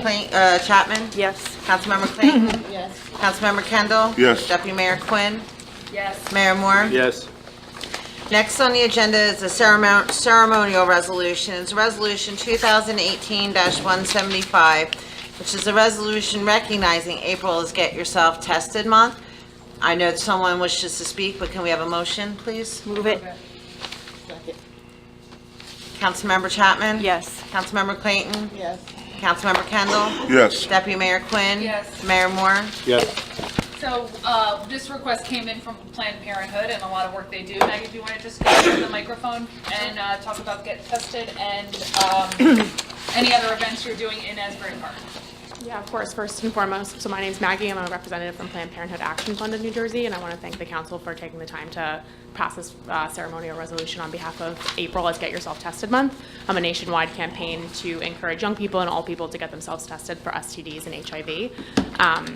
Clayton, uh, Chapman? Yes. Councilmember Clayton? Yes. Councilmember Kendall? Yes. Deputy Mayor Quinn? Yes. Mayor Moore? Yes. Next on the agenda is the ceremon- ceremonial resolutions, Resolution 2018-175, which is a resolution recognizing April as Get Yourself Tested Month. I know someone wishes to speak, but can we have a motion, please? Move it. Second. Councilmember Chapman? Yes. Councilmember Clayton? Yes. Councilmember Kendall? Yes. Deputy Mayor Quinn? Yes. Mayor Moore? Yes. So uh, this request came in from Planned Parenthood and a lot of work they do. Maggie, do you want to just go to the microphone and uh, talk about Get Tested and um, any other events you're doing in Asbury Park? Yeah, of course. First and foremost, so my name's Maggie. I'm a representative from Planned Parenthood Action Fund of New Jersey, and I want to thank the council for taking the time to pass this uh, ceremonial resolution on behalf of April as Get Yourself Tested Month. I'm a nationwide campaign to encourage young people and all people to get themselves tested for STDs and HIV. Um,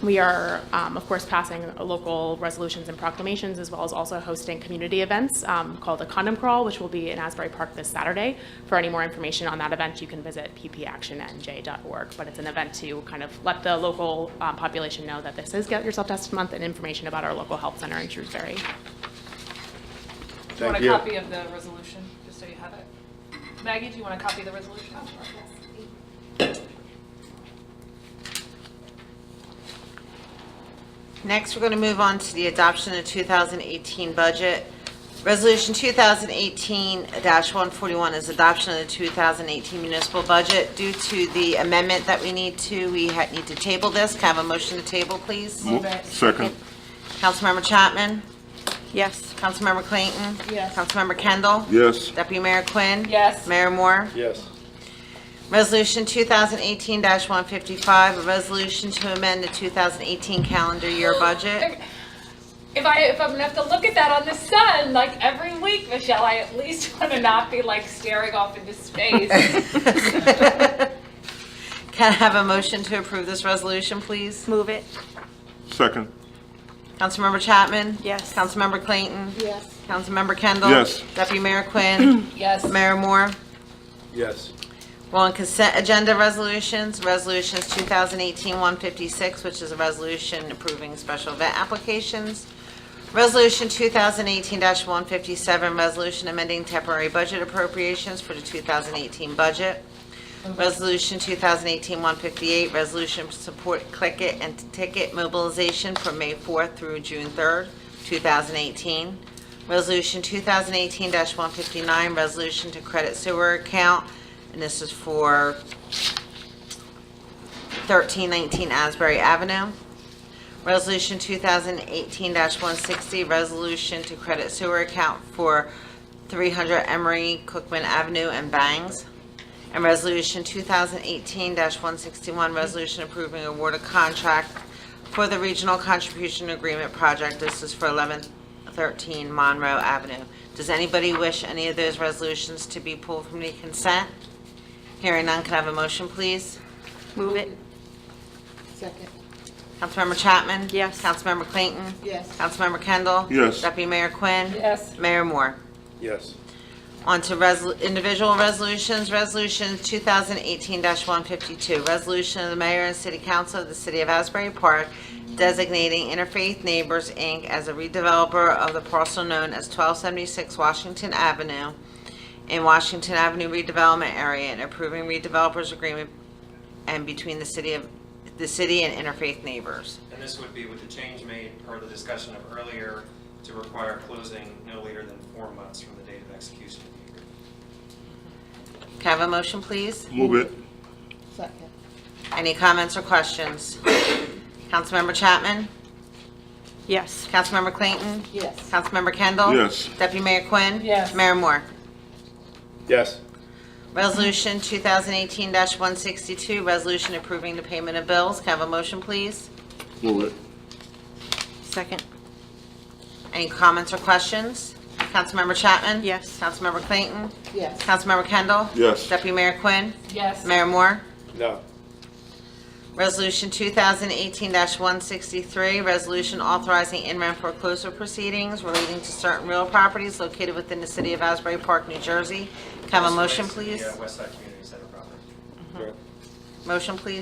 we are, um, of course, passing local resolutions and proclamations, as well as also hosting community events um, called the Condom Crawl, which will be in Asbury Park this Saturday. For any more information on that event, you can visit ppactionnj.org. But it's an event to kind of let the local um, population know that this is Get Yourself Tested Month and information about our local health center in Shrewsbury. Do you want Thank a you. copy of the resolution, just so you have it? Maggie, do you want a copy of the resolution? Next, we're going to move on to the adoption of 2018 budget. Resolution 2018-141 is adoption of the 2018 municipal budget. Due to the amendment that we need to, we ha- need to table this. Can I have a motion to table, please? Mo- Second. Councilmember Chapman? Yes. Councilmember Clayton? Yes. Councilmember Kendall? Yes. Deputy Mayor Quinn? Yes. Mayor Moore? Yes. Resolution 2018-155, a resolution to amend the 2018 calendar year budget. If I if I'm gonna have to look at that on the sun like every week, Michelle, I at least want to not be like staring off into space. Can I have a motion to approve this resolution, please? Move it. Second. Councilmember Chapman? Yes. Councilmember Clayton? Yes. Councilmember Kendall? Yes. Deputy Mayor Quinn? yes. Mayor Moore? Yes. We're on consent agenda resolutions. Resolutions 2018-156, which is a resolution approving special event applications. Resolution 2018-157, resolution amending temporary budget appropriations for the 2018 budget. Resolution 2018-158, resolution to support Click It and Ticket mobilization from May 4th through June 3rd, 2018. Resolution 2018-159, resolution to credit sewer account, and this is for 1319 Asbury Avenue. Resolution 2018-160, resolution to credit sewer account for 300 Emery Cookman Avenue and Bangs. And Resolution 2018-161, resolution approving award of contract for the Regional Contribution Agreement Project. This is for 1113 Monroe Avenue. Does anybody wish any of those resolutions to be pulled from the consent? Hearing none, can I have a motion, please? Move it. Second. Councilmember Chapman? Yes. Councilmember Clayton? Yes. Councilmember Kendall? Yes. Deputy Mayor Quinn? Yes. Mayor Moore? Yes. On to resol- individual resolutions. Resolution 2018-152, resolution of the mayor and city council of the city of Asbury Park designating Interfaith Neighbors, Inc. as a redeveloper of the parcel known as 1276 Washington Avenue in Washington Avenue redevelopment area and approving redevelopers agreement and between the city of, the city and Interfaith Neighbors. And this would be with the change made per the discussion of earlier to require closing no later than four months from the date of execution of the agreement. Can I have a motion, please? Move it. Second. Any comments or questions? Councilmember Chapman? Yes. Councilmember Clayton? Yes. Councilmember Kendall? Yes. Deputy Mayor Quinn? Yes. Mayor Moore? Yes. Resolution 2018-162, resolution approving the payment of bills. Can I have a motion, please? Move it. Second. Any comments or questions? Councilmember Chapman? Yes. Councilmember Clayton? Yes. Councilmember Kendall? Yes. Deputy Mayor Quinn? Yes. Mayor Moore? No. Resolution 2018-163, resolution authorizing in-rem foreclosure proceedings relating to certain real properties located within the city of Asbury Park, New Jersey. Can I have a motion, This relates please? to the, uh, West Side Community Center property. Right. Motion, please.